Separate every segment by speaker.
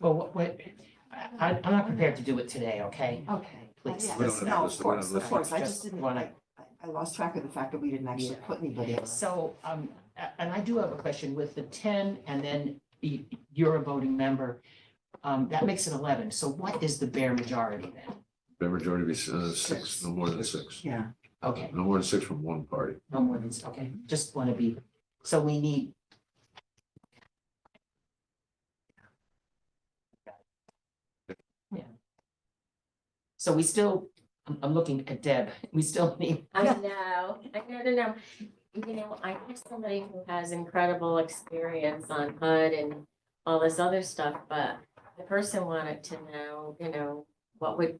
Speaker 1: Well, what, what, I, I'm not prepared to do it today, okay?
Speaker 2: Okay.
Speaker 1: Please.
Speaker 2: Yeah,
Speaker 1: We
Speaker 3: don't have
Speaker 2: No,
Speaker 3: this,
Speaker 2: of
Speaker 3: we don't
Speaker 2: course,
Speaker 3: have this.
Speaker 2: of course. I just
Speaker 1: Just
Speaker 2: didn't, I,
Speaker 1: wanna-
Speaker 2: I lost track of the fact that we didn't actually
Speaker 1: Yeah.
Speaker 2: put anybody on.
Speaker 1: So, um, a- and I do have a question with the ten and then y- you're a voting member. Um, that makes it eleven. So what is the bare majority then?
Speaker 3: The majority be uh, six, no more than six.
Speaker 2: Yeah.
Speaker 1: Okay,
Speaker 3: No more than six from one party.
Speaker 1: no more than, okay, just want to be, so we need. Yeah. So we still, I'm, I'm looking at Deb. We still need,
Speaker 4: I know, I know, to know. You know, I have somebody who has incredible experience on HUD and all this other stuff, but the person wanted to know, you know, what would,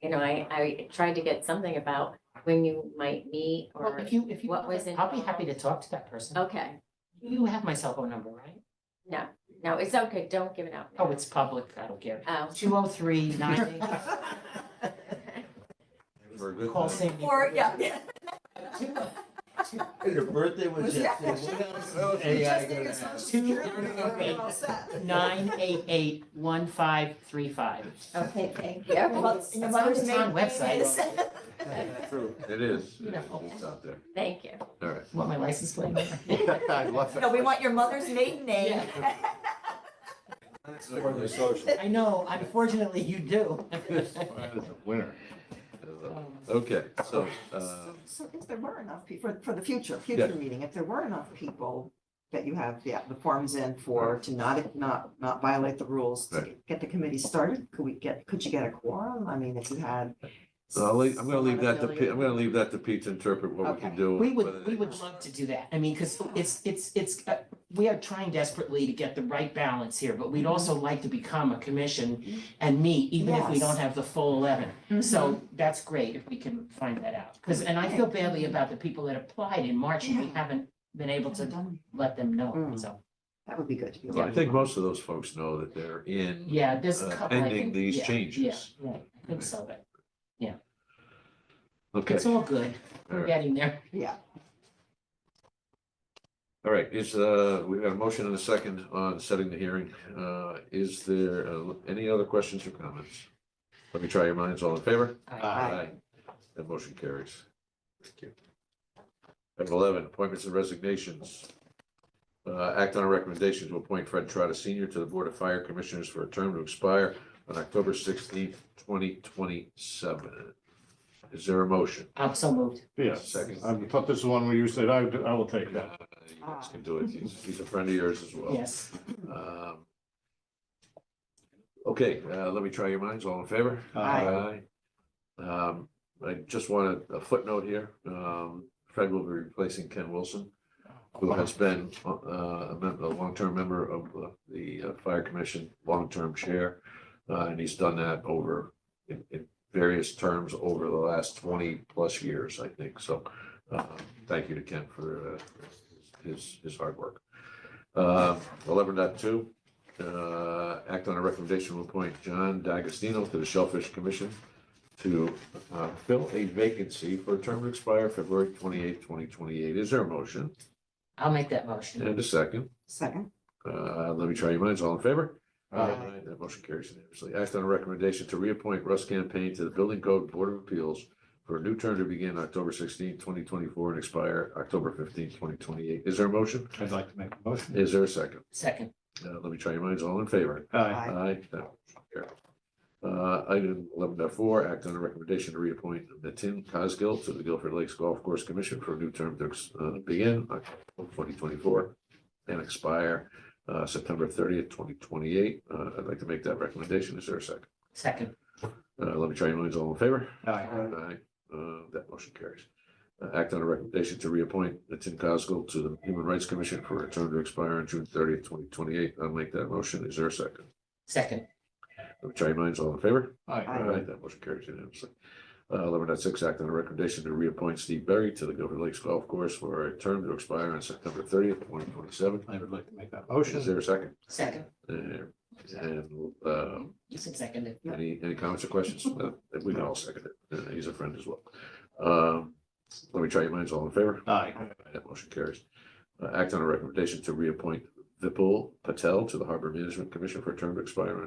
Speaker 4: you know, I, I tried to get something about when you might meet
Speaker 1: well,
Speaker 4: or,
Speaker 1: if you, if you,
Speaker 4: What was Oh.
Speaker 1: I'll be happy to
Speaker 4: involved?
Speaker 1: talk to that person.
Speaker 4: okay,
Speaker 1: You have my cell phone number, right?
Speaker 4: no, no, it's okay, don't give it out.
Speaker 1: Oh, it's public, I don't care.
Speaker 4: Oh.
Speaker 1: Two oh three nine eight, call Sandy.
Speaker 2: Or, yeah.
Speaker 5: Your birthday was
Speaker 2: Was yesterday. Just need a social security
Speaker 1: Two-
Speaker 2: number, we're all set.
Speaker 1: Nine eight eight one five three five.
Speaker 4: Oh, Okay, thank
Speaker 2: Yeah,
Speaker 4: you,
Speaker 2: well,
Speaker 1: It's on the town website.
Speaker 3: True, it is.
Speaker 1: You know.
Speaker 3: It's out there.
Speaker 4: thank you.
Speaker 3: All right.
Speaker 1: Want my license plate?
Speaker 3: I love that.
Speaker 2: No, we want your mother's maiden name.
Speaker 3: That's a social.
Speaker 1: I know, unfortunately you do.
Speaker 3: That is a Winner.
Speaker 1: Um,
Speaker 3: Okay, so, uh,
Speaker 2: So if there were enough people, for, for the future,
Speaker 3: Yeah.
Speaker 2: future meeting, if there were enough people that you have, yeah, the forms in for, to not, not, not violate the rules, to get the committee started, could we get, could you get a quorum? I mean, if you had.
Speaker 3: so I'll leave, I'm gonna leave that to, Pete. I'm
Speaker 2: Someone
Speaker 3: gonna leave that to Pete to interpret what we can
Speaker 2: Okay.
Speaker 3: do.
Speaker 1: We
Speaker 3: whether
Speaker 1: would,
Speaker 3: they-
Speaker 1: we would love to do that. I mean, because it's, it's, it's, uh, we are trying desperately to get the right balance here, but
Speaker 2: Mm-hmm.
Speaker 1: we'd also like to become a commission and meet, even if we
Speaker 2: Yes. Mm-hmm.
Speaker 1: don't have the full eleven.
Speaker 2: million.
Speaker 1: So that's great if we can find that out. Because, and I feel badly about the people that applied in March and we
Speaker 2: Yeah.
Speaker 1: haven't been able to
Speaker 2: Mhm.
Speaker 1: let them know.
Speaker 2: Mm.
Speaker 1: So,
Speaker 2: That would be good. to be able
Speaker 3: Well, I
Speaker 2: to-
Speaker 3: think most of those folks know that they're in.
Speaker 1: yeah, there's a
Speaker 3: Uh,
Speaker 1: couple. I
Speaker 3: pending
Speaker 1: think-
Speaker 3: these
Speaker 1: yeah, yeah,
Speaker 3: changes.
Speaker 1: Yeah, I think so, but
Speaker 3: Okay,
Speaker 1: it's all good.
Speaker 3: all
Speaker 1: We're
Speaker 3: right,
Speaker 1: getting there.
Speaker 2: Yeah.
Speaker 3: all right, is, uh, we have a motion and a second on setting the hearing. Uh, is there, uh, any other questions or comments? Let me try your minds, all in favor?
Speaker 2: Aye.
Speaker 3: That motion carries. Thank you. Item eleven, appointments and resignations. Uh, act on a recommendation to appoint Fred Trotta Senior to the Board of Fire Commissioners for a term to expire on October sixteenth, twenty twenty-seven. Is there a motion?
Speaker 1: I'm so moved.
Speaker 6: Yes,
Speaker 3: Second.
Speaker 6: I thought this is one where you said, I, I will take
Speaker 3: Uh,
Speaker 6: that.
Speaker 3: You guys can do it. He's, he's a friend of yours as well.
Speaker 1: Yes.
Speaker 3: Um, Okay, uh, let me try your minds. All in favor?
Speaker 2: Aye.
Speaker 3: Aye. Um, I just wanted a footnote here. Um, Fred will be replacing Ken Wilson, who has been, uh, a member, a long-term member of uh, the uh, Fire Commission, long-term chair. Uh, and he's done that over, in, in various terms over the last twenty-plus years, I think. So, uh, thank you to Ken for, uh, his, his hard work. Uh, eleven dot two, uh, act on a recommendation to appoint John D'Agostino to the Shellfish Commission to uh, fill a vacancy for a term to expire February twenty-eighth, twenty twenty-eight. Is there a motion?
Speaker 1: I'll make that motion.
Speaker 3: And a second.
Speaker 2: Second.
Speaker 3: Uh, Let me try your minds. All in favor?
Speaker 2: Aye.
Speaker 3: That motion carries unanimously. Act on a recommendation to reappoint Russ Campaign to the Building Code Board of Appeals for a new term to begin October sixteenth, twenty twenty-four and expire October fifteenth, twenty twenty-eight. Is there a motion?
Speaker 6: I'd like to make a motion.
Speaker 3: Is there a second?
Speaker 1: Second.
Speaker 3: Uh, Let me try your minds. All in favor?
Speaker 6: Aye.
Speaker 2: Aye.
Speaker 3: Aye. that motion carries. Uh, item eleven point four. act on a recommendation to reappoint Natin Cosgill to the Guilford Lakes Golf Course Commission for a new term to, uh, begin twenty twenty-four and expire, uh, September thirtieth, twenty twenty-eight. Uh, I'd like to make that recommendation. Is there a second?
Speaker 1: Second.
Speaker 3: Uh, let me try your minds. All in favor?
Speaker 6: Aye.
Speaker 3: Aye. Uh, that motion carries. Uh, Act on a recommendation to reappoint Tim Cosgill to the Human Rights Commission for a term to expire on June thirtieth, twenty twenty-eight. I'll make that motion. Is there a second?
Speaker 1: Second.
Speaker 3: Let me try your minds. All in favor?
Speaker 6: Aye.
Speaker 3: All right, that motion carries unanimously. Uh, Eleven dot six, act on a recommendation to reappoint Steve Berry to the Guilford Lakes Golf Course for a term to expire on September thirtieth, twenty twenty-seven.
Speaker 6: I would like to make that
Speaker 3: Is
Speaker 6: motion.
Speaker 3: there a second?
Speaker 1: Second.
Speaker 3: Uh, And, uh,
Speaker 1: You said second. it.
Speaker 3: any, any comments or questions? No, We can all second it. Uh, He's a friend as well. Um, Let me try your minds. All in favor?
Speaker 6: Aye.
Speaker 3: That motion carries. Uh, Act on a recommendation to reappoint Vipul Patel to the Harbor Management Commission for a term to expire on